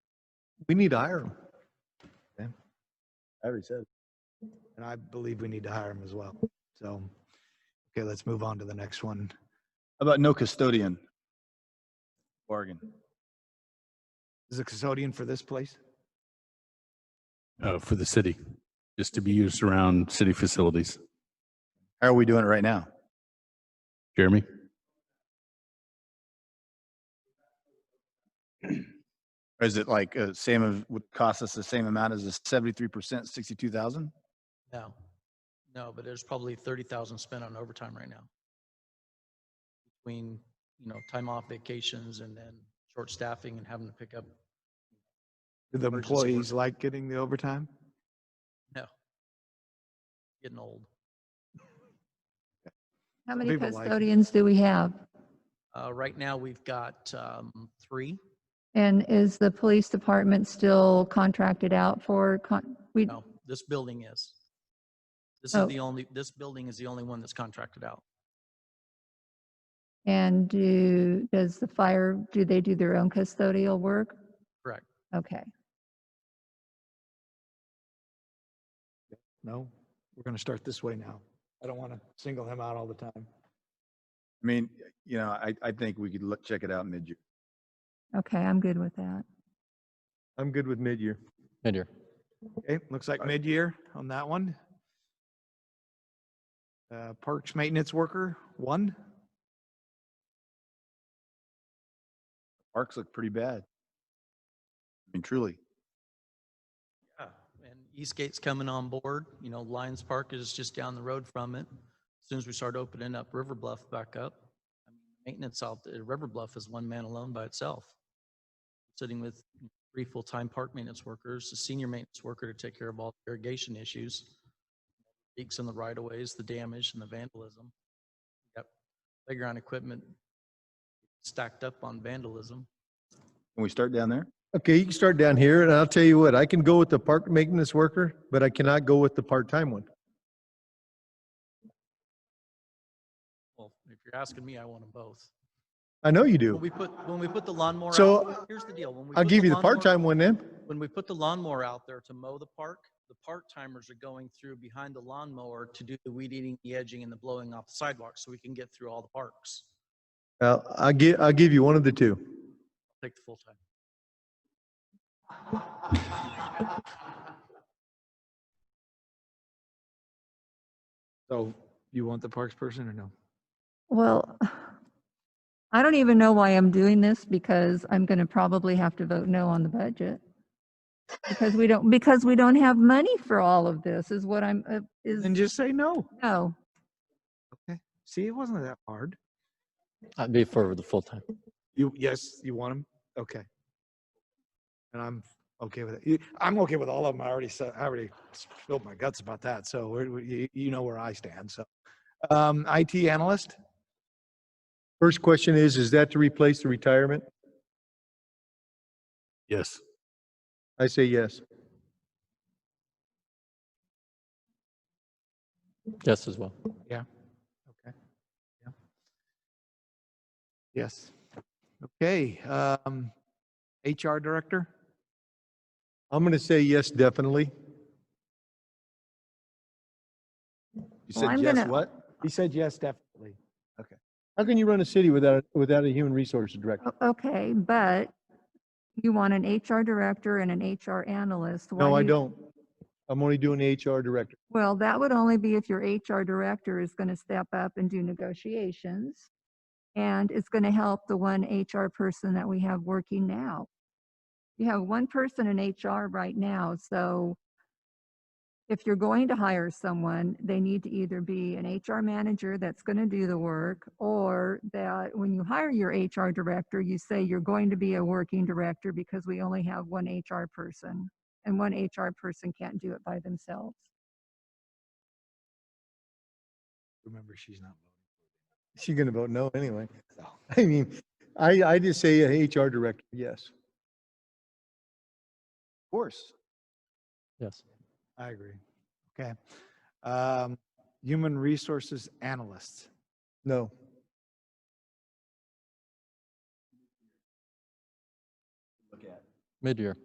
We need to hire him. I already said. And I believe we need to hire him as well. So, okay, let's move on to the next one. How about no custodian? Bargain. Is the custodian for this place? uh, for the city, just to be used around city facilities. How are we doing it right now? Jeremy? Or is it like uh, same of would cost us the same amount as the seventy-three percent, sixty-two thousand? No, no, but there's probably thirty thousand spent on overtime right now. Between, you know, time off vacations and then short staffing and having to pick up, Do the Emergency employees like getting the overtime? getting old. How many people like it. custodians do we have? Uh, right now, we've got, um, three. And is the police department still contracted out for, con- we, No, this building is. This is Oh. the only, this building is the only one that's contracted out. and do, does the fire, do they do their own custodial work? Correct. Okay. No? We're going to start this way now. I don't want to single him out all the time. I mean, you know, I, I think we could look, check it out mid-year. Okay, I'm good with that. I'm good with mid-year. Mid-year. Okay, looks like mid-year on that one. Uh, Parks maintenance worker, one. Parks look pretty bad. I mean, truly. Yeah, and Eastgate's coming on board, you know, Lions Park is just down the road from it. As Soon as we start opening up River Bluff back up, I mean, maintenance out at River Bluff is one man alone by itself. Sitting with three full-time park maintenance workers, a senior maintenance worker to take care of all the irrigation issues. Leaks in the right of ways, the damage and the vandalism. Got playground equipment stacked up on vandalism. Can we start down there? Okay, you can start down here, and I'll tell you what, I can go with the park maintenance worker, but I cannot go with the part-time one. Well, if you're asking me, I want them both. I know you When do. we put, when we put the lawnmower out. So, there- Here's the deal. when we I'll put give you the lawnmower- part-time one then. When we put the lawnmower out there to mow the park, the part-timers are going through behind the lawnmower to do the weed eating, the edging, and the blowing off the sidewalks, so we can get through all the parks. Uh, I'll gi- I'll give you one of the two. Take the full-time. So you want the parks person or no? Well, I don't even know why I'm doing this because I'm going to probably have to vote no on the budget. Because we don't, because we don't have money for all of this is what I'm, uh, is, Then just say no. no. See, it wasn't that hard. I'd be for the full time. You, yes, you want him? Okay. And I'm okay with it. You- I'm okay with all of them. I already said, I already spilled my guts about that. So we're- we- you, you know where I stand. So, um, IT analyst, First question is, is that to replace the retirement? Yes. I say yes. Yes, as well. yes. Okay, um, HR director? I'm going to say yes, definitely. You Well, said I'm yes, gonna- what? He said yes, definitely. How can you run a city without, a- without a human resources director? O- Okay, but you want an HR director and an HR analyst. Uh, why No, I you- don't. I'm only doing the HR director. Well, that would only be if your HR director is going to step up and do negotiations. And it's going to help the one HR person that we have working now. You have one person in HR right now, so if you're going to hire someone, they need to either be an HR manager that's going to do the work or that when you hire your HR director, you say you're going to be a working director because we only have one HR person and one HR person can't do it by themselves. Remember, she's not voting. She's going to vote no anyway. I mean, I, I just say a HR director, yes. Of course. Yes. I agree. Okay. Um, human resources analyst. No. Mid-year.